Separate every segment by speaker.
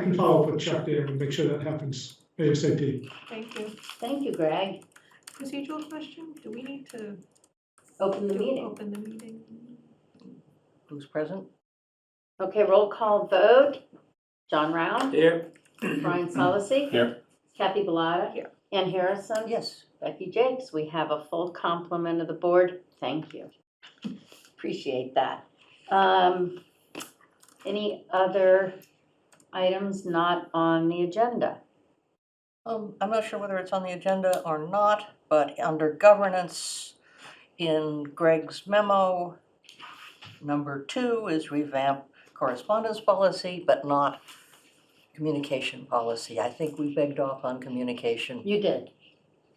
Speaker 1: I can follow up with Chuck there and make sure that happens ASAP.
Speaker 2: Thank you.
Speaker 3: Thank you, Greg.
Speaker 2: Procedural question, do we need to
Speaker 3: Open the
Speaker 2: do-
Speaker 3: meeting.
Speaker 2: open the meeting?
Speaker 3: Who's present? Okay, roll call vote. John Round,
Speaker 4: Here.
Speaker 3: Brian Solacey.
Speaker 4: Here.
Speaker 3: Kathy Bellata.
Speaker 2: Here.
Speaker 3: Ann Harrison.
Speaker 5: Yes.
Speaker 3: Becky Jakes, we have a full complement of the board. Thank you. Appreciate that. Um, Any other items not on the agenda?
Speaker 5: Um, I'm not sure whether it's on the agenda or not, but under governance, in Greg's memo, number two is revamp correspondence policy, but not communication policy. I think we begged off on communication
Speaker 3: You did.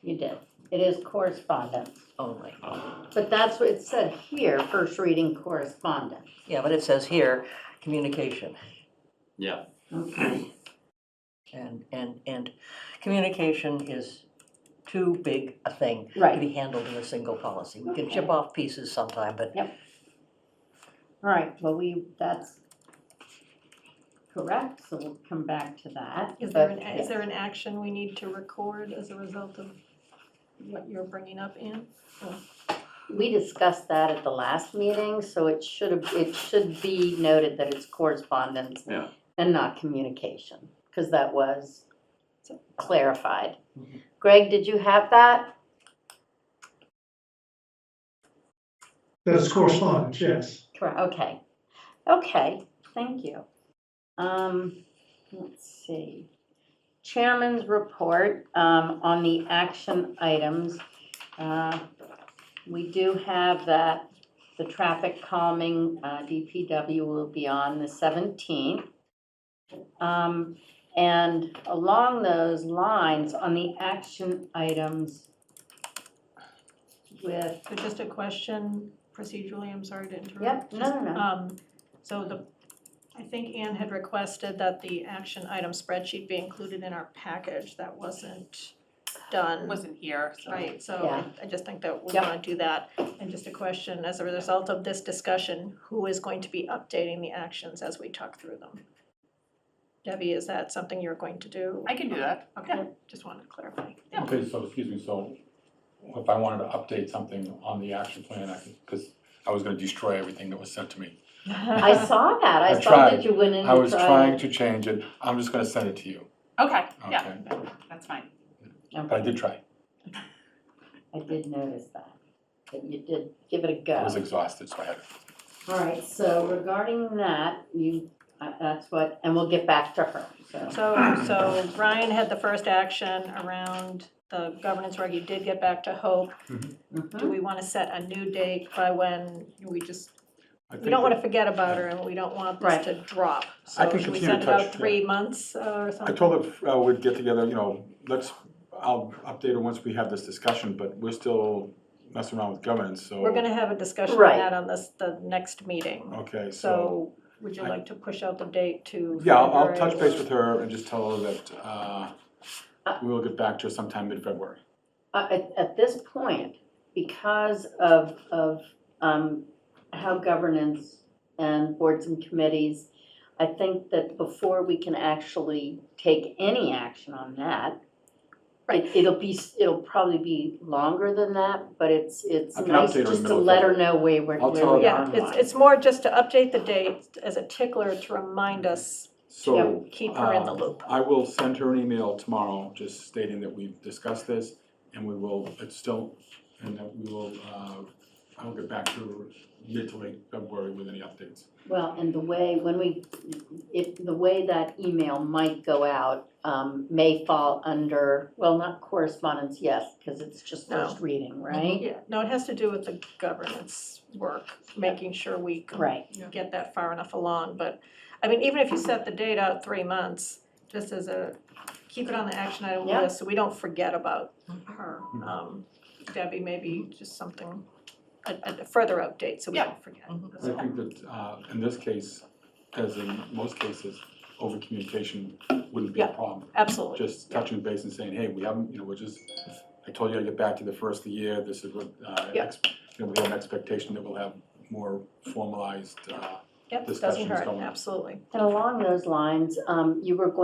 Speaker 3: You did. It is correspondence.
Speaker 5: only.
Speaker 3: But that's what it said here, first reading correspondence.
Speaker 5: Yeah, but it says here, communication.
Speaker 4: Yeah.
Speaker 3: Okay.
Speaker 5: And, and, and communication is too big a thing to
Speaker 3: Right,
Speaker 5: be handled in a single policy. We can chip
Speaker 3: Okay.
Speaker 5: off pieces sometime, but
Speaker 3: all right, well, we, that's correct, so we'll come back to that.
Speaker 2: Is there
Speaker 3: but-
Speaker 2: an, is there an action we need to record as a result of what you're bringing up, Ann?
Speaker 3: We discussed that at the last meeting, so it should have, it should be noted that it's correspondence
Speaker 4: Yeah.
Speaker 3: and not communication, because that was clarified.
Speaker 5: Mhm.
Speaker 3: Greg, did you have that?
Speaker 1: That's correspondence, yes.
Speaker 3: Correct, okay. Okay, thank you. Um, let's see. Chairman's report, um, on the action items. Uh, We do have that the traffic calming, uh, DPW will be on the seventeenth. Um, and along those lines, on the action items with,
Speaker 2: So just a question procedurally, I'm sorry to interrupt.
Speaker 3: yep, no,
Speaker 2: Just,
Speaker 3: no, no.
Speaker 2: Um, so the, I think Ann had requested that the action item spreadsheet be included in our package, that wasn't done.
Speaker 6: wasn't here, so.
Speaker 2: Right, so
Speaker 3: Um, Yeah.
Speaker 2: I- I just think that we
Speaker 3: Yep.
Speaker 2: wanna do that. And just a question, as a result of this discussion, who is going to be updating the actions as we talk through them? Debbie, is that something you're going to do?
Speaker 6: I can do that.
Speaker 2: Okay, just wanted to clarify.
Speaker 6: Yeah.
Speaker 7: Okay, so, excuse me, so if I wanted to update something on the action plan, I could, because I was gonna destroy everything that was sent to me.
Speaker 3: I saw that. I,
Speaker 7: I
Speaker 3: saw that
Speaker 7: tried.
Speaker 3: you went in
Speaker 7: I
Speaker 3: and
Speaker 7: was trying
Speaker 3: tried.
Speaker 7: to change it, I'm just gonna send it to you,
Speaker 6: Okay, yeah,
Speaker 7: Okay.
Speaker 6: that- that's fine.
Speaker 7: but I did try,
Speaker 3: I did notice that, that you did give it a
Speaker 7: I was
Speaker 3: go.
Speaker 7: exhausted, so I had.
Speaker 3: All right, so regarding that, you, uh, that's what, and we'll get back to her, so.
Speaker 2: So, so Ryan had the first action around the governance reg, you did get back to Hope. Do
Speaker 6: Hmm?
Speaker 3: mhm.
Speaker 2: we wanna set a new date by when we just,
Speaker 7: I
Speaker 2: we don't wanna forget about her and we don't want
Speaker 3: Right.
Speaker 2: this to drop.
Speaker 7: I
Speaker 2: So
Speaker 7: can
Speaker 2: should we
Speaker 7: continue
Speaker 2: set
Speaker 7: to
Speaker 2: it
Speaker 7: touch,
Speaker 2: out three months uh, or
Speaker 7: I
Speaker 2: something?
Speaker 7: told her uh, we'd get together, you know, let's, I'll update her once we have this discussion, but we're still messing around with governance, so.
Speaker 2: We're gonna have a discussion
Speaker 3: Right.
Speaker 2: on that on this, the next meeting.
Speaker 7: Okay, so,
Speaker 2: So would you
Speaker 7: I-
Speaker 2: like to push out the date to?
Speaker 7: yeah, I'll, I'll
Speaker 2: February
Speaker 7: touch base
Speaker 2: or-
Speaker 7: with her and just tell her that, uh,
Speaker 3: Uh,
Speaker 7: we will get back to her sometime mid-February.
Speaker 3: Uh, at, at this point, because of, of, um, how governance and boards and committees, I think that before we can actually take any action on that,
Speaker 2: Right.
Speaker 3: it- it'll be, s- it'll probably be longer than that, but it's, it's
Speaker 7: I can
Speaker 3: nice
Speaker 7: update her in the
Speaker 3: just to
Speaker 7: middle of
Speaker 3: let her
Speaker 7: February.
Speaker 3: know where we're,
Speaker 7: I'll
Speaker 3: where
Speaker 7: tell her
Speaker 3: we
Speaker 7: that.
Speaker 3: are.
Speaker 2: Yeah,
Speaker 3: on
Speaker 2: it's,
Speaker 3: that.
Speaker 2: it's more just to update the date as a tickler to remind us
Speaker 7: So.
Speaker 2: to keep her in the
Speaker 7: Um,
Speaker 2: loop.
Speaker 7: I will send her an email tomorrow, just stating that we've discussed this, and we will, it's still, and that we will, uh, I will get back to her mid to late February with any updates.
Speaker 3: Well, and the way, when we, if, the way that email might go out, um, may fall under, well, not correspondence, yes, because it's just
Speaker 2: No.
Speaker 3: first reading, right?
Speaker 2: Yeah, no, it has to do with the governance work, making sure we can
Speaker 3: Right,
Speaker 2: get that far enough along, but, I mean, even if you set the date out three months, just as a, keep it on the action item
Speaker 3: Yeah.
Speaker 2: list, so we don't forget about her.
Speaker 7: Mm-hmm.
Speaker 2: Um, Debbie, maybe just something, a, a further update, so we
Speaker 6: Yeah.
Speaker 2: don't forget.
Speaker 5: Mhm.
Speaker 2: That's
Speaker 7: I
Speaker 2: all.
Speaker 7: think that, uh, in this case, as in most cases, over communication wouldn't be a
Speaker 2: Yeah.
Speaker 7: problem.
Speaker 2: Absolutely,
Speaker 7: Just touching base and saying, hey, we haven't, you know, we're just, I told you I'd get back to you the first of the year, this is what, uh,
Speaker 2: Yeah.
Speaker 7: ex- you know, we have an expectation that we'll have more formalized, uh,
Speaker 2: Yep, doesn't
Speaker 7: Discussions
Speaker 2: hurt,
Speaker 7: going on.
Speaker 2: absolutely.
Speaker 3: And along those lines, um, you were going